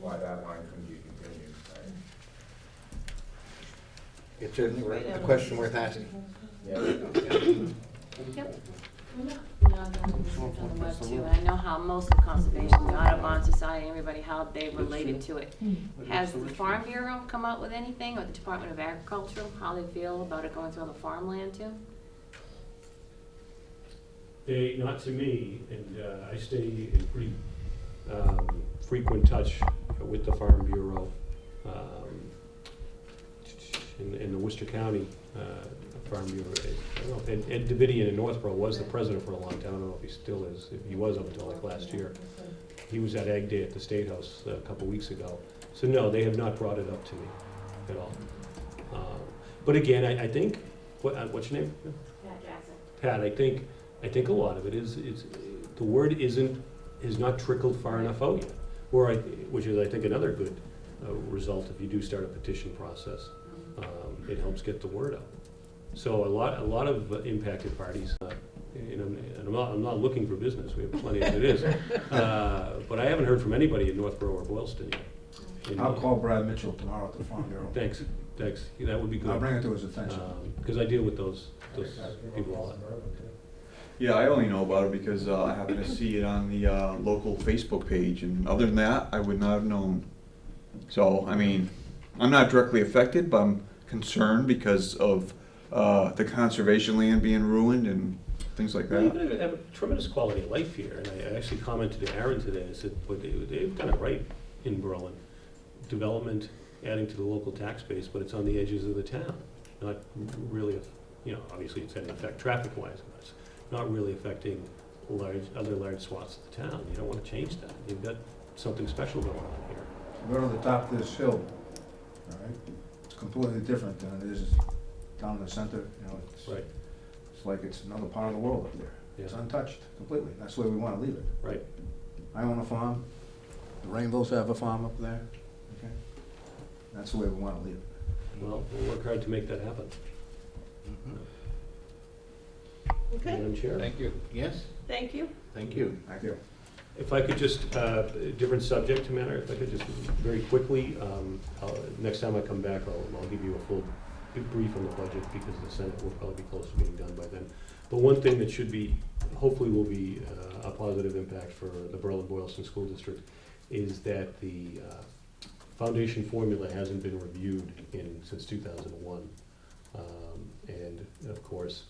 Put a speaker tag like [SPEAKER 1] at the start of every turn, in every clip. [SPEAKER 1] why that line couldn't be continued, right?
[SPEAKER 2] It's certainly worth, a question worth asking.
[SPEAKER 3] Yep. You know, I've done research on the web too, and I know how most of conservation, the Audubon Society, everybody, how they related to it.
[SPEAKER 4] Hmm.
[SPEAKER 3] Has the Farm Bureau come up with anything, or the Department of Agriculture, how they feel about it going through the farmland too?
[SPEAKER 5] They, not to me, and uh, I stay in pretty um, frequent touch with the Farm Bureau. um, In, in the Worcester County uh, Farm Bureau, I don't know, Ed- Ed Davidian in Northborough was the president for a long time, I don't know if he still is, if he was up until like last year. He was at Ag Day at the State House uh, a couple weeks ago. So no, they have not brought it up to me at all. Um, But again, I, I think, what, uh, what's your name? Pat, I think, I think a lot of it is, is, the word isn't, has not trickled far enough out yet. Where I, which is, I think, another good uh, result if you do start a petition process. Um, It helps get the word out. So a lot, a lot of uh, impacted parties, uh, and I'm, and I'm not, I'm not looking for business, we have plenty as it is. Uh, But I haven't heard from anybody in Northborough or Boylston yet. And-
[SPEAKER 6] I'll call Brad Mitchell tomorrow at the Farm Bureau.
[SPEAKER 5] Thanks, thanks, that would be
[SPEAKER 6] I'll
[SPEAKER 5] good.
[SPEAKER 6] bring it to his attention.
[SPEAKER 5] Because I deal with those, those people a lot.
[SPEAKER 7] Yeah, I only know about it because uh, I happened to see it on the uh, local Facebook page, and other than that, I would not have known. So, I mean, I'm not directly affected, but I'm concerned because of uh, the conservation land being ruined and things like
[SPEAKER 5] Well, you
[SPEAKER 7] that.
[SPEAKER 5] could have a tremendous quality of life here, and I I actually commented to Aaron today, I said, but they- they've done it right in Berlin. Development adding to the local tax base, but it's on the edges of the town, not really, you know, obviously it's had an effect traffic-wise, but it's not really affecting large, other large swaths of the town, you don't wanna change that, you've got something special going on here.
[SPEAKER 6] Go to the top of this hill, all right? It's completely different than it is down in the center, you know, it's,
[SPEAKER 5] Right.
[SPEAKER 6] it's like it's another part of the world up there. It's
[SPEAKER 5] Yeah.
[SPEAKER 6] untouched completely, that's the way we wanna leave it.
[SPEAKER 5] Right.
[SPEAKER 6] I own a farm, the Rainbows have a farm up there, okay? That's the way we wanna leave it.
[SPEAKER 5] Well, we'll work hard to make that happen.
[SPEAKER 2] Mm-hmm.
[SPEAKER 4] Okay,
[SPEAKER 5] Madam Chair?
[SPEAKER 2] Thank you. Yes,
[SPEAKER 4] thank you.
[SPEAKER 2] thank you.
[SPEAKER 6] Thank you.
[SPEAKER 5] If I could just, uh, a different subject matter, if I could just very quickly, um, I'll- next time I come back, I'll, I'll give you a full brief on the budget because the Senate will probably be close to being done by then. But one thing that should be, hopefully will be uh, a positive impact for the Berlin Boylston School District is that the uh, foundation formula hasn't been reviewed in, since 2001. Um, And of course,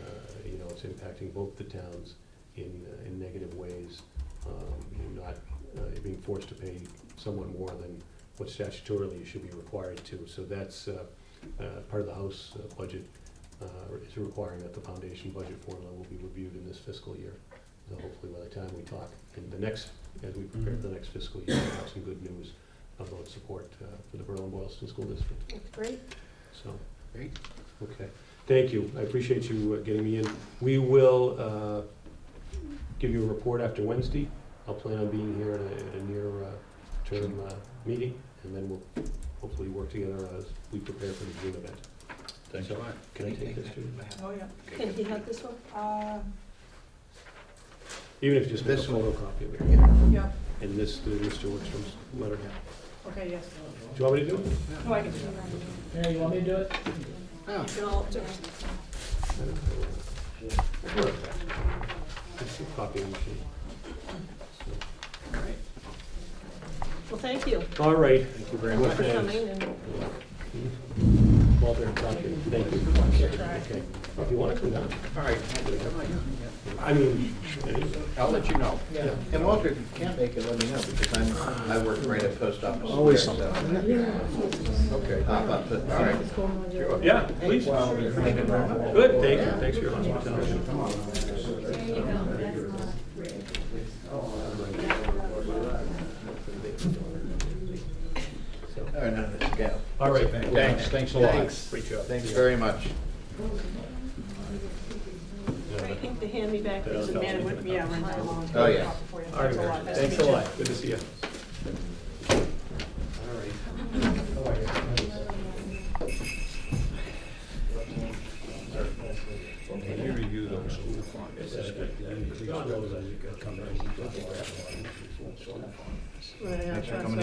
[SPEAKER 5] uh, you know, it's impacting both the towns in, uh, in negative ways um, and not uh, being forced to pay someone more than what statutorily you should be required to. So that's uh, uh, part of the House uh, budget, uh, is requiring that the foundation budget formula will be reviewed in this fiscal year. So hopefully by the time we talk, in the next, as we prepare for the next fiscal year, we'll have some good news about support uh, for the Berlin Boylston School District.
[SPEAKER 4] Great.
[SPEAKER 5] So.
[SPEAKER 2] Great.
[SPEAKER 5] Okay, thank you. I appreciate you uh, getting me in. We will uh, give you a report after Wednesday. I'll plan on being here at a- at a near-term uh, meeting, and then we'll hopefully work together as we prepare for the June event.
[SPEAKER 2] Thanks a lot.
[SPEAKER 5] Can I take this too?
[SPEAKER 4] Oh, yeah. Can he have this one?
[SPEAKER 5] Even if you just make a
[SPEAKER 2] This one.
[SPEAKER 5] photocopy of it.
[SPEAKER 8] Yeah,
[SPEAKER 5] And this, the Mr. Wickstrom's letter. Do
[SPEAKER 8] okay, yes.
[SPEAKER 5] you want me to do it?
[SPEAKER 8] No, I can do that.
[SPEAKER 9] Yeah, you want me to do it?
[SPEAKER 2] Oh,
[SPEAKER 8] You can all do it.
[SPEAKER 5] Sure. Just a copy machine. So,
[SPEAKER 2] Oh,
[SPEAKER 4] Well, thank you
[SPEAKER 5] All right.
[SPEAKER 2] thank you very
[SPEAKER 4] for
[SPEAKER 2] much.
[SPEAKER 4] coming and
[SPEAKER 5] Walter, thank you. Thank you. Okay. If you want to come down.
[SPEAKER 2] All right, I'll do it. Come on, yeah.
[SPEAKER 5] I mean,
[SPEAKER 2] I'll let you know.
[SPEAKER 9] Yeah.
[SPEAKER 2] And Walter, if you can't make it, let me know, because I'm, I work right at post office.
[SPEAKER 6] Always
[SPEAKER 2] there, so
[SPEAKER 6] Okay.
[SPEAKER 2] Pop up, but, all right.
[SPEAKER 5] yeah, please. Good, thank you, thanks for your hospitality.
[SPEAKER 2] All right, now let's go.
[SPEAKER 5] All right.
[SPEAKER 2] Thanks, thanks a lot.
[SPEAKER 5] Great job.
[SPEAKER 2] Thanks very much.
[SPEAKER 4] to hand me back these
[SPEAKER 5] Yeah.
[SPEAKER 4] amendments.
[SPEAKER 8] Yeah, rent that along.
[SPEAKER 2] Oh, yeah.
[SPEAKER 5] All right, Mary. thanks a lot, good to see you.